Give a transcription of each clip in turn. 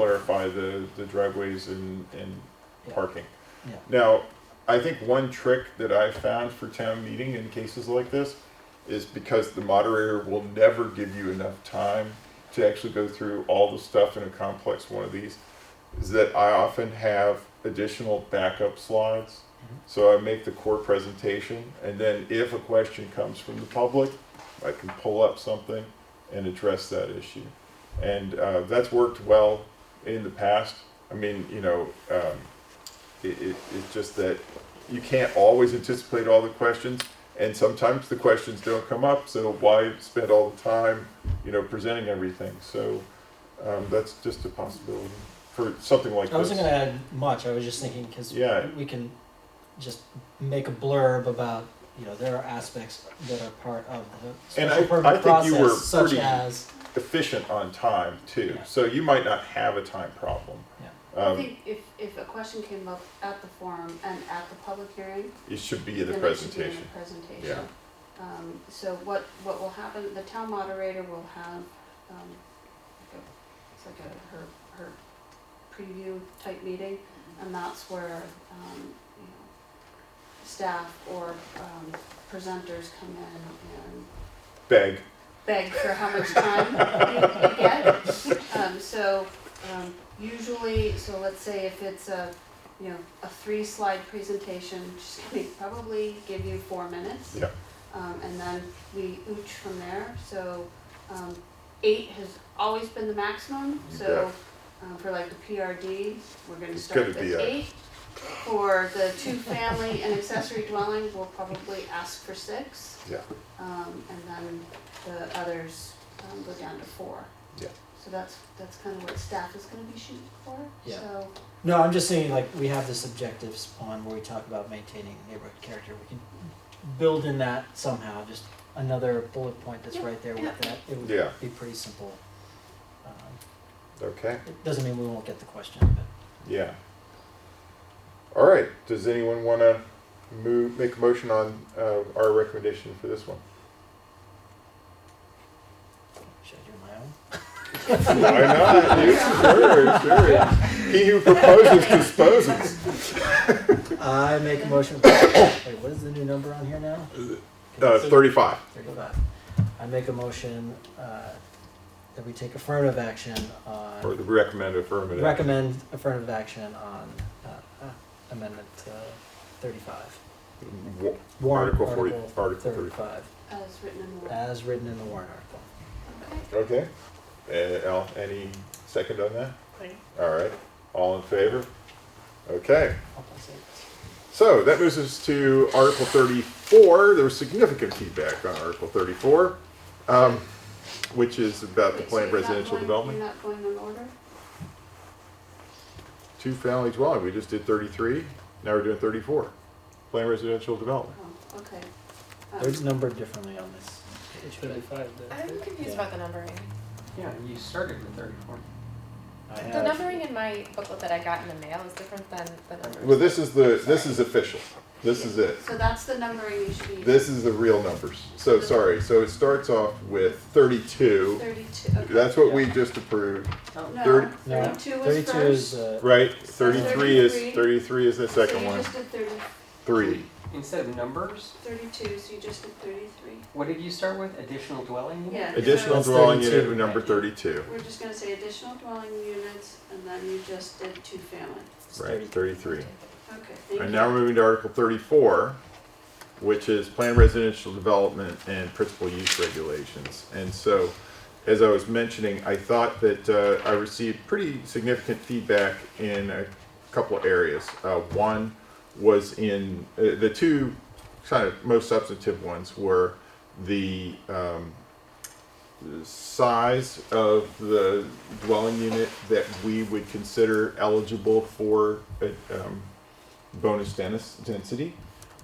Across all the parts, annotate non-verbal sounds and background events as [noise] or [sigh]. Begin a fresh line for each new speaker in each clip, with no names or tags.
clarify the, the driveways and, and
Yeah.
parking.
Yeah.
Now, I think one trick that I've found for town meeting in cases like this is because the moderator will never give you enough time to actually go through all the stuff in a complex one of these, is that I often have additional backup slides.
Mhm.
So I make the core presentation, and then if a question comes from the public, I can pull up something and address that issue. And uh, that's worked well in the past. I mean, you know, um, it, it, it's just that you can't always anticipate all the questions, and sometimes the questions don't come up, so why spend all the time, you know, presenting everything? So um, that's just a possibility for something like
I wasn't
this.
gonna add much. I was just thinking because
Yeah.
we can just make a blurb about you know there are aspects that are part of the
And
special
I-
permit
I think
process,
you were
such
pretty-
as
Efficient on time, too.
Yeah.
So you might not have a time problem.
I
Um,
think if, if a question came up at the forum and at the public hearing,
it should be in
then
the
it should be in the
presentation.
presentation. Um, so what, what will happen, the town moderator will have, um, like a- it's like a, her, her preview type meeting, and that's where, um, you know, staff or, um, presenters come in and
Beg.
beg for how much time you you get. Um, so, um, usually, so let's say if it's a, you know, a three-slide presentation, she's gonna probably give you four minutes.
Yeah.
Um, and then we ooch from there, so, um, eight has always been the maximum,
You
so, um, for like the PRD, we're gonna
It's
start
gonna
with
be a-
eight. For the two-family and accessory dwelling, we'll probably ask for six.
Yeah.
Um, and then the others, um, go down to four.
Yeah.
So that's, that's kind of what staff is gonna be shooting for,
Yeah.
so,
no. I'm just saying like we have this objectives on where we talk about maintaining neighborhood character. We can build in that somehow. Just another bullet point that's
Yeah,
right there
yeah.
with that. It would
Yeah.
be pretty simple. Um,
Okay.
it doesn't mean we won't get the question, but
Yeah. All right. Does anyone want to move, make a motion on uh, our recommendation for this
[laughs]
one?
should I do my own?
Why not? You- sure, sure. He who proposes disposes.
I make a motion. [coughs] Wait, what is the new number on here now?
Uh, Thirty-five.
Thirty-five. I make a motion uh, that we take affirmative action
Or
on,
the recommend affirmative.
recommend affirmative action on uh, uh, amendment uh, thirty-five.
Wa-
Warrant
Article forty- Article
Thirty-five,
as uh, written in the law.
as written in the warrant article.
Okay.
Okay,
Uh, Al, any second on that? All right. All in favor? Okay.
I'll pass it.
So that moves us to Article 34. There was significant feedback on Article 34, um, which is about the
Wait, so
planned
you're not
residential
going-
development.
You're not going in order?
Two family dwelling. We just did 33. Now we're doing 34. Planned residential development.
Oh, okay. Um,
They're numbered differently on this.
It's thirty-five, that's
I'm
it.
confused
Yeah.
about the numbering.
Yeah, you started with thirty-four.
I
The
have,
numbering in my booklet that I got in the mail is different than the numbers.
Well, this is the this is official. This is it.
So that's the numbering you should be.
This is the real numbers. So sorry. So it starts off with 32.
Thirty-two, okay.
That's what we just approved,
Oh, No,
thirty-
no,
thirty-two was first.
thirty-two is, uh,
right? 33 is
33.
33 is the second
So you
one.
just did thirty,
Three.
Instead of numbers,
thirty-two, so you just did thirty-three.
what did you start with? Additional dwelling? unit?
Yeah.
Additional
That's
dwelling
32.
unit number 32.
We're just gonna say additional dwelling units, and then you just did two-family.
it's
Right.
30.
33.
Okay, thank you.
And now we're moving to Article thirty-four, which is planned residential development and principal use regulations. And so, as I was mentioning, I thought that uh, I received pretty significant feedback in a couple of areas. Uh, One was in, uh, the two kind of most substantive ones were the um, the size of the dwelling unit that we would consider eligible for uh, um, bonus dennis- density.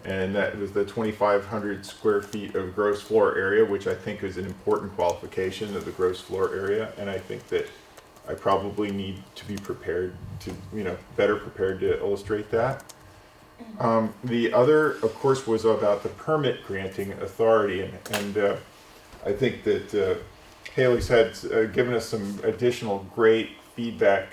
And that was the 2,500 square feet of gross floor area, which I think is an important qualification of the gross floor area. And I think that I probably need to be prepared to, you know, better prepared to illustrate that. Um, the other, of course, was about the permit granting authority. And, and uh, I think that uh, Haley's had uh, given us some additional great feedback